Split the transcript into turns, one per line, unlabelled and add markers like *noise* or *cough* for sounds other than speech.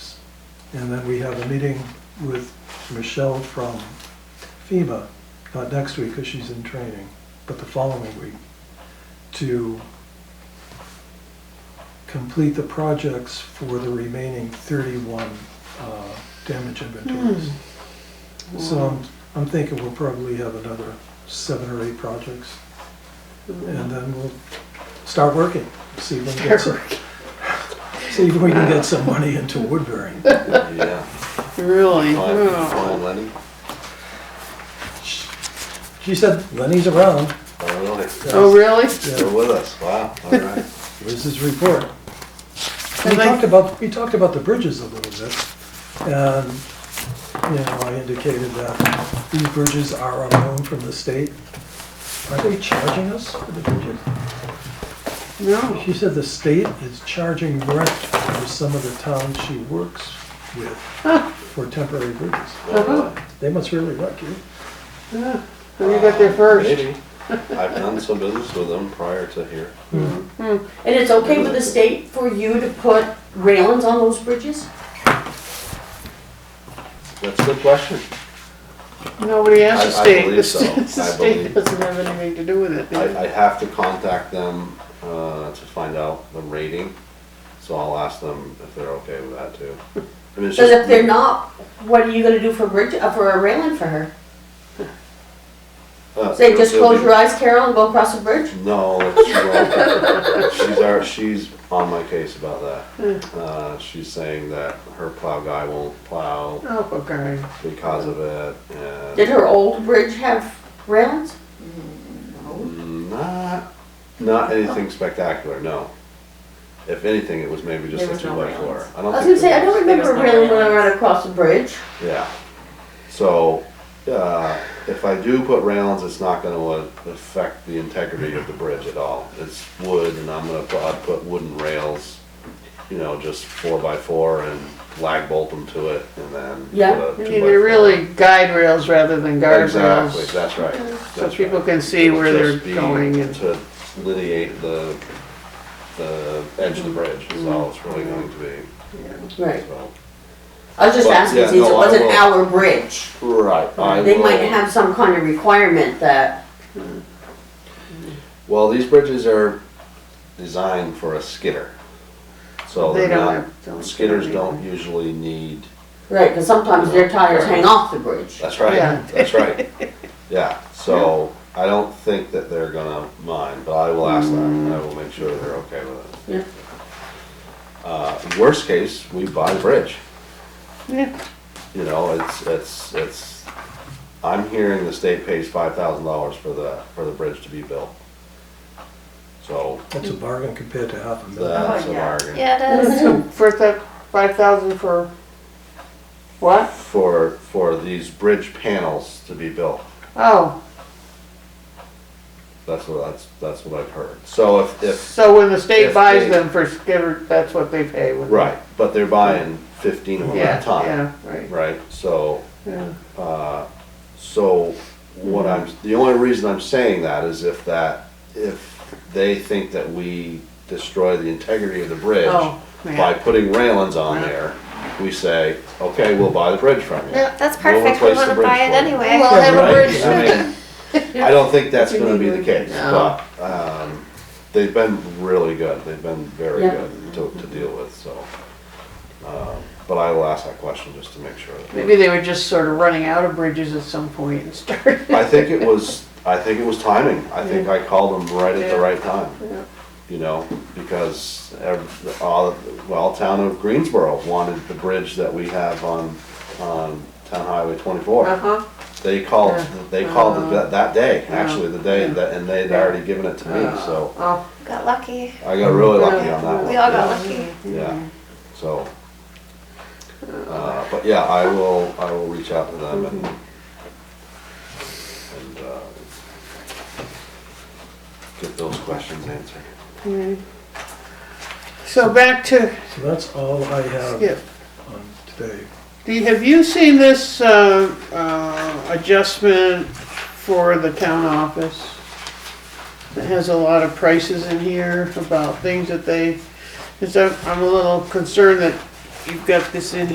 And then we have a meeting with Michelle from FEMA, not next week because she's in training, but the following week, to complete the projects for the remaining 31 uh, damage inventories. So I'm, I'm thinking we'll probably have another seven or eight projects. And then we'll start working, see if we can get some, see if we can get some money into Woodbury.
Yeah.
Really?
Find,
Oh.
find Lenny.
She said Lenny's around.
Oh, really?
Oh, really?
Yeah.
Still with us. Wow. All
*laughs*
right.
Where's his report? We
I'd like-
talked about, we talked about the bridges a little bit, and, you know, I indicated that these bridges are on loan from the state. Are they charging us for the bridges?
No.
She said the state is charging rent for some of the towns she works with for temporary bridges.
Well,
They must really like you.
Yeah. So you got there first.
uh, Maybe. I've done some business with them prior to here.
And it's okay with the state for you to put railings on those bridges?
That's a good question.
Nobody has
I-
the
I
state.
believe
The
so.
st- *laughs* the
I
state
believe-
doesn't have anything to do with it.
I, I have to contact them, uh, to find out the rating. So I'll ask them if they're okay with that too. I mean, it's
Because
just-
if they're not, what are you gonna do for bridge, uh, for a railing for her?
uh,
Say, just
it'll be-
close your eyes, Carol, and go across the bridge?
No,
*laughs*
that's wrong. she's our, she's on my case about
Hmm.
that. Uh, she's saying that her plow guy won't plow
Oh, okay.
because of it and.
Did her old bridge have railings?
Not, not anything spectacular, no. If anything, it was maybe just
There
a
was
two
no
by four.
railings.
I
I
don't
was
think
gonna say, I
there
don't
was-
remember a
There was no
railing when I
railings.
ran across the bridge.
Yeah. So, uh, if I do put railings, it's not gonna uh, affect the integrity of the bridge at all. It's wood and I'm gonna, put- I'd put wooden rails, you know, just four by four and lag bolt them to it and then. put a
Yeah.
two
You
by
need
four.
to really guide rails rather than guard
Exactly,
rails.
that's right.
So
that's
people
right.
can see
It would
where they're
just be
going and-
To lineate the, the edge of the bridge is all it's really going to be,
Right.
so.
I was just
But,
asking
yeah,
since it
no, I
wasn't
will.
our bridge.
Right, I
They might
will-
have some kind of requirement that,
Well, these bridges are designed for a skidder. So
They
they're
don't
not,
have. don't-
skidders don't usually need,
right, because sometimes their tires hang off the bridge.
that's
Yeah.
right, that's
*laughs*
right. Yeah, so I don't think that they're gonna mind, but I will ask them, I will make sure they're okay with it.
Yeah.
Uh, worst case, we buy the bridge.
Yeah.
you know, it's, it's, it's, I'm hearing the state pays five thousand dollars for the, for the bridge to be built. So,
That's a bargain compared to half a million.
that's a
Oh, yeah.
bargain.
Yeah, it is.
So For that five thousand for what?
For, for these bridge panels to be built,
Oh,
that's what, that's, that's what I've heard. So if, if,
so when the
If
state buys
they-
them for skidder, that's what they pay. when they-
right, but they're buying fifteen of them
Yeah,
at a time,
yeah, right,
right? So,
yeah.
Uh, So what I'm, the only reason I'm saying that is if that, if they think that we destroy the integrity of the bridge
Oh, yeah.
by putting railings on
Yeah.
there, we say, okay, we'll buy the bridge from you.
Yeah.
That's
We'll
perfect, we
replace the
wanna
bridge
buy it
for you.
anyway.
Well,
have a
Right?
bridge.
*laughs*
I mean, I don't think that's gonna be the case,
No.
but, um, they've been really good, they've been very
Yeah.
good to, to deal with, so. um, But I will ask that question just to make sure. that-
Maybe they were just sort of running out of bridges at some point and *laughs* started.
I think it was, I think it was timing. I think I called them right at the right time. You know, because every, all, well, town of Greensboro wanted the bridge that we have on, on Town Highway twenty-four.
Uh-huh.
They called, they called it that, that day,
Yeah.
actually, the day that, and they'd already given it to me, so
Oh,
Got lucky.
I got really lucky on that one.
We all
yeah.
got lucky.
Yeah, so, uh, but yeah, I will, I will reach out to them and, and, uh, get those questions answered.
so back to
So that's all I
Skip.
have on today.
Do you, have you seen this, uh, uh, adjustment for the town office? It has a lot of prices in here about things that they, 'cause I'm, I'm a little concerned that you've got this in